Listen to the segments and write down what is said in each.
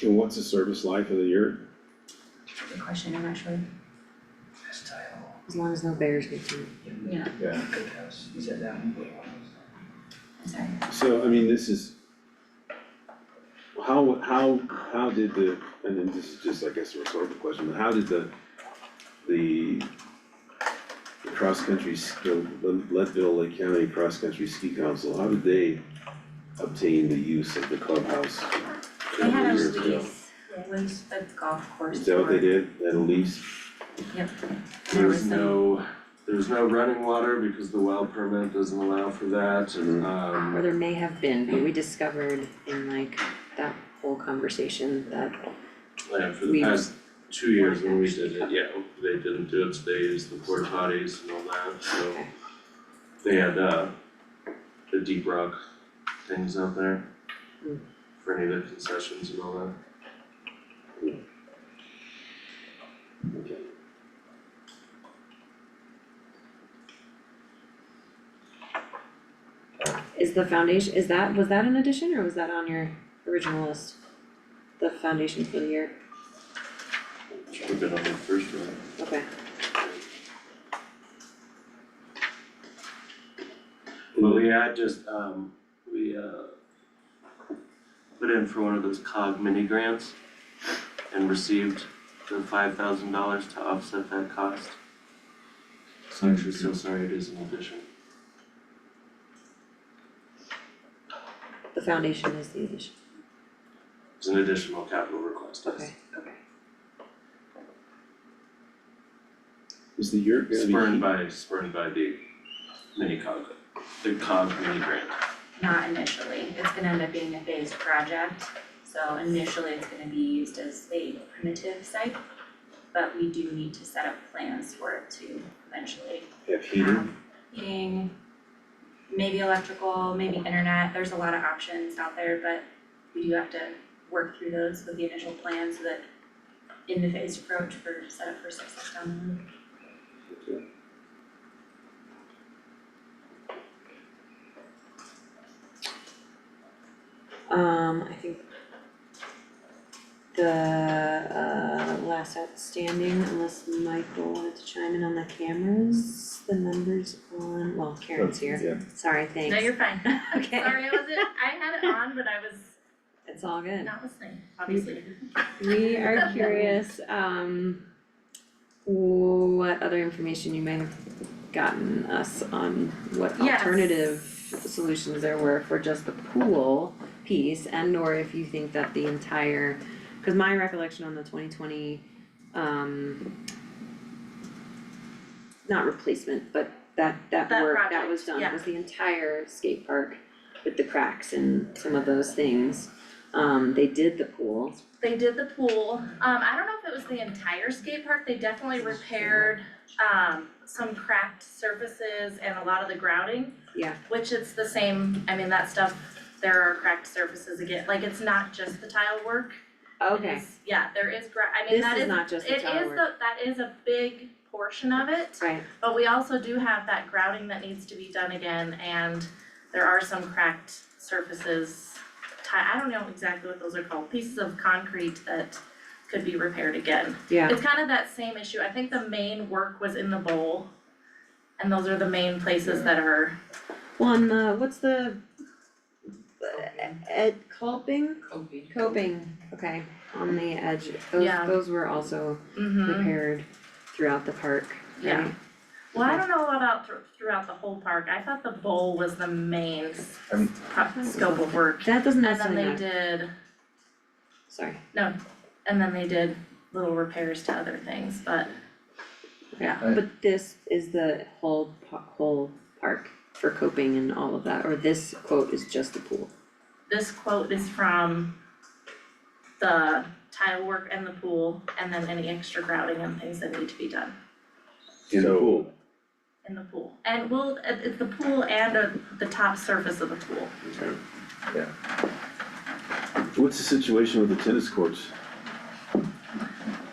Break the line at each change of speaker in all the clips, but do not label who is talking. And what's the service life of the yurt?
Good question, I'm not sure,
Best title,
As long as no bears get to it.
yeah,
Yeah.
good house, you said that one.
sorry.
So, I mean, this is. How, how, how did the, and then this is just, I guess, a rhetorical question, but how did the, the. The cross-country, s- the Le- Leadville Lake County Cross Country Ski Council, how did they obtain the use of the clubhouse? a
They
couple
had a
years ago?
lease with the golf course.
Is that what they
for-
did, that a lease?
Yep. There
There's
was some,
no, there's no running water because the well permit doesn't allow for that,
Mhm.
Or
um,
there may have been, but we discovered in like that whole conversation that
yeah, for
We-
the past two years when we did it, yeah, they didn't do it, so they used the porta potties and all that, so.
Okay.
They had, uh, the deep rock things out there
Hmm.
for any of the concessions and all that.
Okay.
is the foundation, is that, was that an addition or was that on your original list? The foundation for the year,
Should have been on the first one.
okay.
But we had just, um, we, uh, put in for one of those cog mini grants and received the five thousand dollars to offset that cost. So actually, so sorry, it is an addition.
The foundation is the addition,
It's an additional capital request, yes.
okay, okay.
Is the yurt gonna be?
Spurned by, spurned by the mini cog, the cog mini grant.
not initially, it's gonna end up being a phased project, so initially it's gonna be used as a primitive site. But we do need to set up plans for it to eventually
Have heating?
have heating, maybe electrical, maybe internet, there's a lot of options out there, but we do have to work through those with the initial plan so that in the phased approach for set up for success down the road.
Um, I think the uh last outstanding, unless Michael wanted to chime in on the cameras, the numbers on, well, Karen's here,
Yeah,
sorry, thanks.
No, you're fine.
Okay.
Sorry, I wasn't, I had it on, but I was
It's all good.
not listening, obviously.
We are curious, um, what other information you might have gotten us on what
Yes.
alternative solutions there were for just the pool piece and or if you think that the entire, cause my recollection on the twenty twenty, um, not replacement, but that, that
That
work that
project,
was done
yeah.
was the entire skate park with the cracks and some of those things. Um, they did the pool,
They did the pool, um, I don't know if it was the entire skate park, they definitely repaired, um, some cracked surfaces and a lot of the grouting.
Yeah.
Which it's the same, I mean, that stuff, there are cracked surfaces again, like it's not just the tile work. It
Okay,
is- Yeah, there is gra- I mean,
this
that
is
is,
not just the
it is
tower,
the, that is a big portion of it.
right,
But we also do have that grouting that needs to be done again and there are some cracked surfaces. Ti- I don't know exactly what those are called, pieces of concrete that could be repaired again.
yeah,
It's kind of that same issue, I think the main work was in the bowl. And those are the main places that are,
well, and the, what's the? Ed coping? Coping. Coping, okay, on the edge, those,
Yeah.
those were also
mhm.
repaired throughout the park,
Yeah.
right?
Well, I don't know about thr- throughout the whole park, I thought the bowl was the main s-
Um,
pro- scope of work.
That doesn't
And then
necessarily
they
matter,
did,
sorry,
and then they did little repairs to other things, but
yeah,
Right.
but this is the whole pa- whole park for coping and all of that, or this quote is just the pool.
this quote is from the tile work and the pool, and then any extra grouting and things that need to be done
in the
So-
pool,
in the pool. And well, it, it's the pool and uh, the top surface of the pool.
what's the situation with the tennis courts?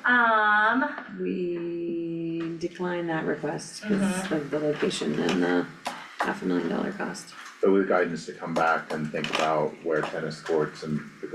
Um,
We declined that request because of the location and the half a million dollar cost.
But with guidance to come back and think about where tennis courts and the